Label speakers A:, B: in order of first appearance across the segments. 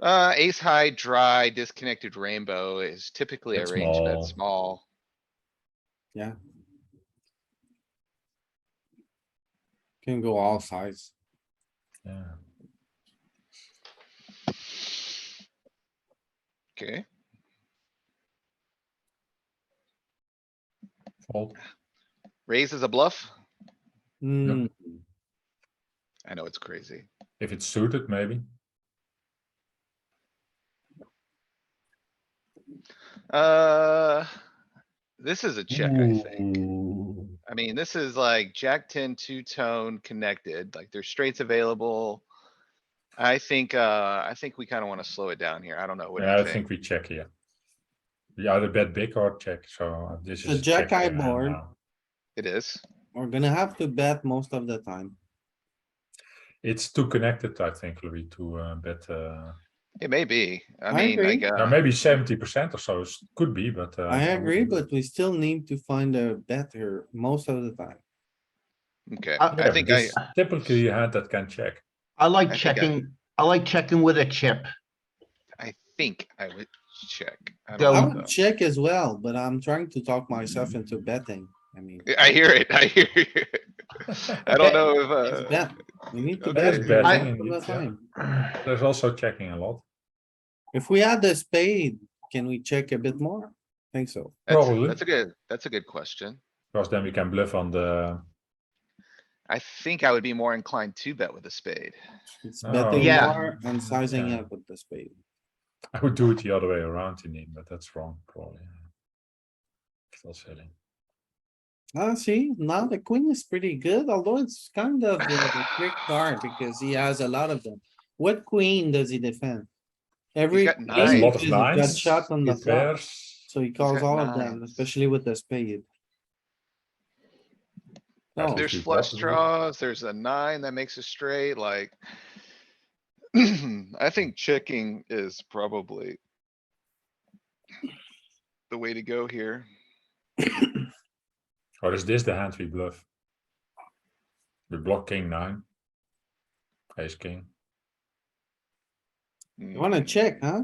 A: Uh, ace high, dry, disconnected rainbow is typically a
B: That's
A: range
B: small.
A: that's small.
C: Can go all size.
B: Yeah.
A: Okay,
B: Fold.
A: raise is a bluff.
C: Hmm,
A: I know it's crazy.
B: If it's suited, maybe.
A: Uh, this is a check, I think.
B: Ooh.
A: I mean, this is like jack ten, two tone connected, like there's straights available. I think, uh, I think we kinda wanna slow it down here. I don't know. What do
B: Yeah,
A: you
B: I think we check here. We either bet big or check, so this
C: The
B: is.
C: jack
B: check
C: eye
B: hand
C: board.
B: now.
A: It is.
C: we're gonna have to bet most of the time.
B: It's too connected, I think, Louis, to uh, bet, uh,
A: It may be. I
C: I
A: mean, like,
C: agree.
B: now
A: uh,
B: maybe seventy percent or so, is- could be, but. uh,
C: I
B: wouldn't
C: agree,
B: do it.
C: but we still need to find a better most of the time.
A: okay,
D: I-
A: I
B: Yeah,
A: think I,
B: this Typically, you had that can check.
D: I
A: I
D: like
A: think I-
D: checking, I like checking with a chip.
A: I think I would check. I
C: I
D: Go.
A: don't know.
C: would check as well, but I'm trying to talk myself into betting. I mean,
A: I hear it, I hear you. I don't know if, uh,
C: it's bet. We need to
A: okay.
C: bet.
A: It's
B: betting,
C: most of the
B: indeed, yeah.
C: time.
B: There's also checking a lot.
C: If we had the spade, can we check a bit more? Think so.
A: that's,
B: Probably.
A: that's a good, that's a good question.
B: Because then we can bluff on the,
A: I think I would be more inclined to bet with a spade.
C: It's
B: Oh.
C: betting
D: Yeah.
C: more and sizing
B: Yeah.
C: up with the spade.
B: I would do it the other way around in the end, but that's wrong, probably. Still silly.
C: Ah, see, now the queen is pretty good, although it's kind of a trick card because he has a lot of them. What queen does he defend? Every.
A: got
C: queen
B: There's a
A: Nines.
B: lot of
C: is a gut
B: nines.
C: Shot on the
B: two
C: flop,
B: pairs.
C: so he calls
A: got
C: all of them,
A: nines.
C: especially with the spade.
B: Yeah,
C: Oh.
B: if
A: There's
B: you
A: flush
B: bluff with it.
A: draws, there's a nine that makes a straight, like. I think checking is probably. The way to go here.
B: Or is this the hand we bluff? We block king nine. Ace king.
C: You wanna
A: Mm.
C: check, huh?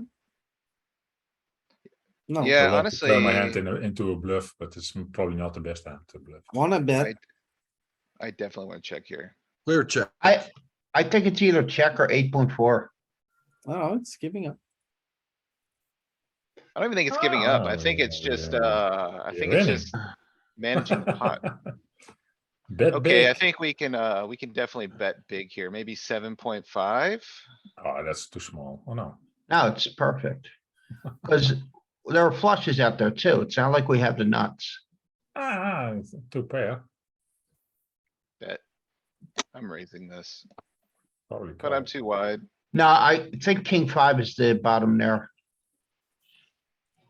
C: No,
A: Yeah,
B: I want to Turn my hand
A: honestly-
B: in a- into a bluff, but it's m- probably not the best hand to bluff.
C: wanna bet,
A: I- I definitely wanna check here.
E: Clear check.
D: I, I think it's either check or eight point four.
C: oh, it's giving up.
A: I don't even think it's giving up. I
B: Oh,
A: think it's
B: yeah,
A: just,
B: yeah.
A: uh, I think
B: You're
A: it's
B: in it.
A: just managing the pot.
B: Bet
A: Okay, I
B: big.
A: think we can, uh, we can definitely bet big here, maybe seven point five.
B: Oh, that's too small. Oh, no.
D: No, it's perfect. Cause there are flushes out there too. It's not like we have the nuts.
B: Ah, it's two pair.
A: I'm raising this,
B: Probably.
A: but I'm
B: call.
A: too wide.
D: No, I think king five is the bottom there.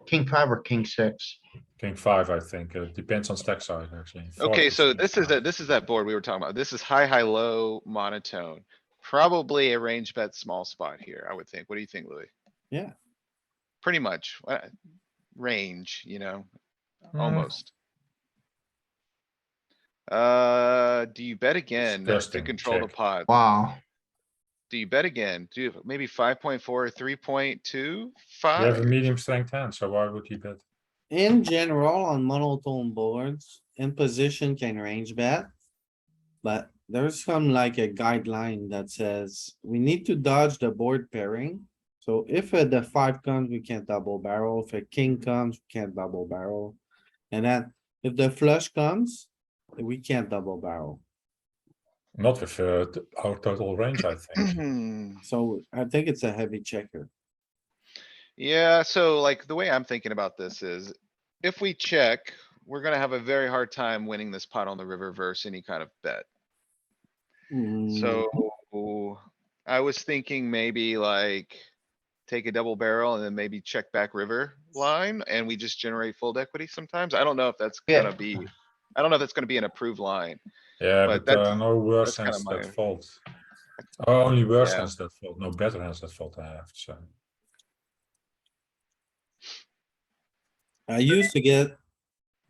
D: King five or king six.
B: King five, I think. Uh, It depends on stack size, actually.
A: Okay, so
B: 40%
A: this is, a-
B: size.
A: this is that board we were talking about. This is high, high, low, monotone. Probably a range bet small spot here, I would think. What do you think, Louis?
C: Yeah.
A: Pretty much, uh, range, you know,
B: Mm,
A: almost. Uh, do you bet again uh, to
B: Disgusting,
A: control the
B: check.
A: pot?
D: Wow.
A: Do you bet again? Do you- maybe five point four, three point two,
B: You have a
A: five?
B: medium strength hand, so why would he bet?
C: In general, on monotone boards, in position can range bet. But there's some like a guideline that says we need to dodge the board pairing. So if uh, the five comes, we can't double barrel. If a king comes, we can't double barrel. And then if the flush comes, we can't double barrel.
B: Not with uh, t- our total range, I think.
C: So I think it's a heavy checker.
A: Yeah, so like the way I'm thinking about this is if we check, we're gonna have a very hard time winning this pot on the river versus any kind of bet. Hmm. So I was thinking maybe like take a double barrel and then maybe check back river line and we just generate fold equity sometimes. I don't know if that's
D: Yeah.
A: gonna be, I don't know if that's gonna be an approved line.
B: Yeah,
A: But
B: but there
A: that's-
B: are no
A: that's
B: worse
A: kinda
B: hands
A: my-
B: that fold. Oh, Only worse
A: Yeah.
B: hands that fold, no better hands that fold, I have to say.
C: I used to get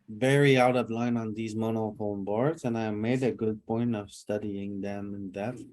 C: very out of line on these monotone boards and I made a good point of studying them in depth.